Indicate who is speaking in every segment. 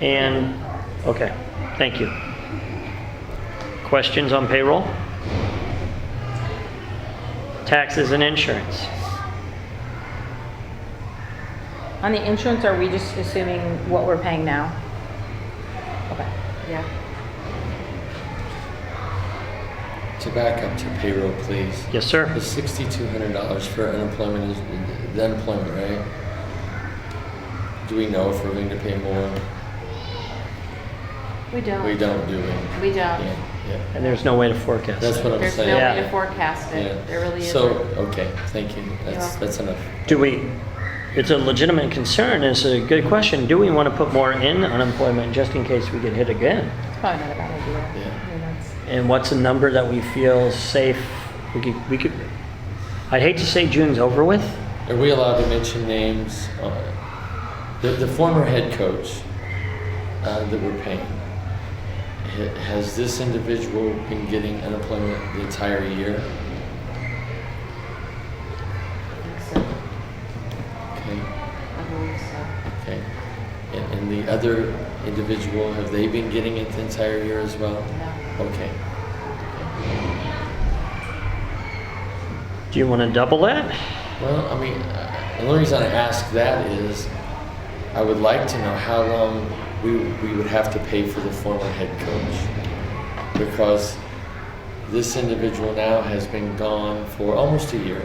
Speaker 1: And, okay, thank you. Questions on payroll? Taxes and insurance?
Speaker 2: On the insurance, are we just assuming what we're paying now? Okay, yeah.
Speaker 3: To back up to payroll, please.
Speaker 1: Yes, sir.
Speaker 3: It's sixty-two hundred dollars for unemployment, is- the unemployment, right? Do we know if we're going to pay more?
Speaker 4: We don't.
Speaker 3: We don't, do we?
Speaker 4: We don't.
Speaker 3: Yeah, yeah.
Speaker 1: And there's no way to forecast.
Speaker 3: That's what I'm
Speaker 4: There's no
Speaker 3: saying.
Speaker 1: Yeah.
Speaker 4: way to forecast
Speaker 3: Yeah.
Speaker 4: it. There really
Speaker 3: So,
Speaker 4: isn't.
Speaker 3: okay, thank you. That's,
Speaker 4: welcome.
Speaker 3: that's enough.
Speaker 1: Do we, it's a legitimate concern, it's a good question. Do we want to put more in unemployment just in case we get hit again?
Speaker 2: It's probably not a bad idea.
Speaker 3: Yeah.
Speaker 2: I mean, that's-
Speaker 1: And what's a number that we feel safe? We could, we could, I'd hate to say June's over with.
Speaker 3: Are we allowed to mention names? Uh, The, the former head coach uh, that we're paying, ha- has this individual been getting unemployment the entire year?
Speaker 4: I think so.
Speaker 3: Okay,
Speaker 4: I believe so.
Speaker 3: okay. And, and the other individual, have they been getting it the entire year as well?
Speaker 4: No.
Speaker 3: Okay.
Speaker 1: Do you want to double that?
Speaker 3: Well, I mean, uh, the only reason I ask that is I would like to know how long we, we would have to pay for the former head coach. Because this individual now has been gone for almost a year.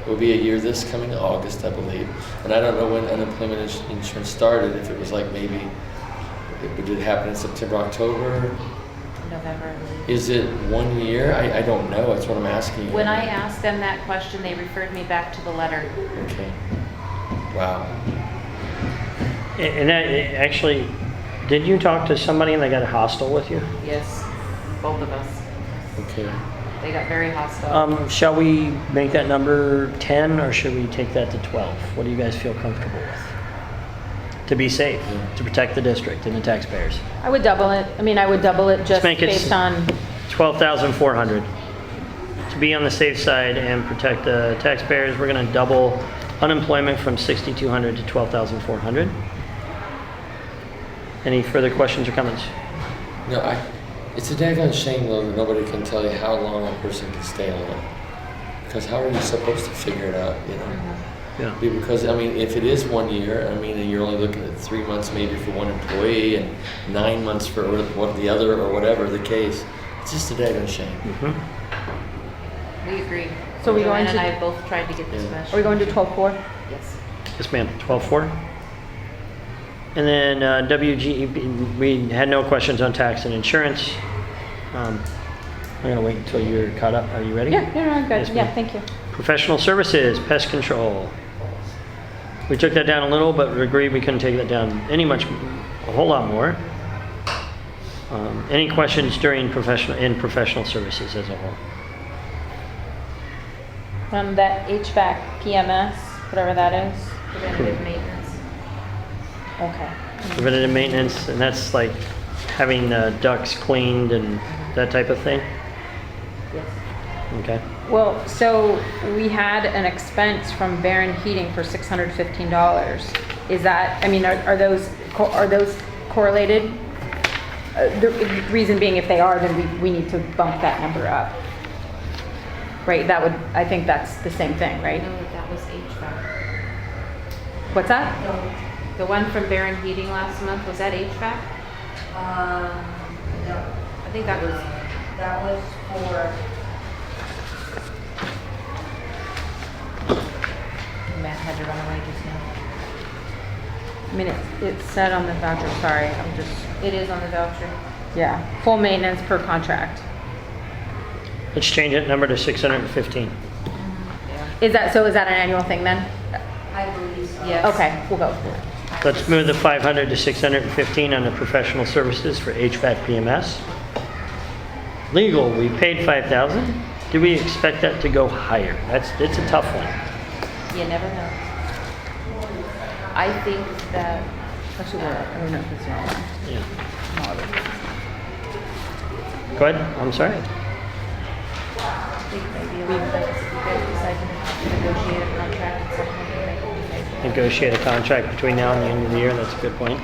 Speaker 3: It will be a year this coming August, I believe. And I don't know when unemployment ins- insurance started, if it was like maybe, it- did it happen in September, October?
Speaker 4: November. I believe.
Speaker 3: Is it one year? I, I don't know, that's what I'm asking you.
Speaker 4: When I asked them that question, they referred me back to the letter.
Speaker 3: Okay. Wow.
Speaker 1: And that, eh, actually, did you talk to somebody and they got hostile with you?
Speaker 4: Yes, both of us.
Speaker 3: Okay.
Speaker 4: They got very hostile.
Speaker 1: Um, shall we make that number 10 or should we take that to 12? What do you guys feel comfortable with? To be safe, to protect the district and the taxpayers.
Speaker 2: I would double it, I mean, I would double it just
Speaker 1: make it s-
Speaker 2: based on,
Speaker 1: 12,400. To be on the safe side and protect the taxpayers, we're going to double unemployment from 6,200 to 12,400. Any further questions or comments?
Speaker 3: No, I, it's a daggone shame though that nobody can tell you how long a person can stay on it. Because how are you supposed to figure it out, you know?
Speaker 4: Mm-hmm.
Speaker 1: Yeah.
Speaker 3: Be- Because, I mean, if it is one year, I mean, and you're only looking at three months maybe for one employee and nine months for what- what the other or whatever the case, it's just a daggone shame.
Speaker 4: We agree.
Speaker 2: So we
Speaker 4: Joanne
Speaker 2: going
Speaker 4: and
Speaker 2: to-
Speaker 4: I both tried to get this
Speaker 3: Yeah.
Speaker 4: measure.
Speaker 2: are we going to 12.4?
Speaker 4: Yes.
Speaker 1: Yes, ma'am, 12,400. And then uh, WGEB, we had no questions on tax and insurance. Um, I'm going to wait until you're caught up. Are you ready?
Speaker 2: Yeah, no, no, I'm
Speaker 1: Yes,
Speaker 2: good, yeah,
Speaker 1: ma'am.
Speaker 2: thank you.
Speaker 1: Professional services, pest control. We took that down a little, but we agreed we couldn't take that down any much, a whole lot more. Um, Any questions during professional, in professional services as a whole?
Speaker 2: Um, that HVAC PMS, whatever that is,
Speaker 4: Preventative maintenance.
Speaker 2: okay.
Speaker 1: Preventative maintenance, and that's like having uh, ducts cleaned and that type of thing?
Speaker 4: Yes.
Speaker 1: Okay.
Speaker 2: Well, so we had an expense from Baron Heating for six hundred fifteen dollars. Is that, I mean, are, are those, co- are those correlated? Uh, The reason being, if they are, then we, we need to bump that number up. Right, that would, I think that's the same thing, right?
Speaker 4: No, that was HVAC.
Speaker 2: What's that?
Speaker 4: The one from Baron Heating last month, was that HVAC?
Speaker 5: Um, no,
Speaker 4: I think that was
Speaker 5: that was for,
Speaker 4: Matt had to run away just now.
Speaker 2: I mean, it's, it's said on the voucher, sorry, I'm just,
Speaker 4: It is on the voucher.
Speaker 2: yeah, full maintenance per contract.
Speaker 1: Let's change that number to 615.
Speaker 4: Yeah.
Speaker 2: Is that, so is that an annual thing then?
Speaker 5: I believe so.
Speaker 4: Yes.
Speaker 2: Okay, we'll go. with it.
Speaker 1: Let's move the 500 to 615 on the professional services for HVAC PMS. Legal, we paid 5,000. Do we expect that to go higher? That's, it's a tough one.
Speaker 4: You never know. I think that
Speaker 2: Actually, we're- I don't know if it's wrong.
Speaker 1: Yeah. Go ahead, I'm sorry.
Speaker 4: I think maybe a little bit, if you guys decide to negotiate a contract at some point, it might be nice.
Speaker 1: Negotiate a contract between now and the end of the year, that's a good point.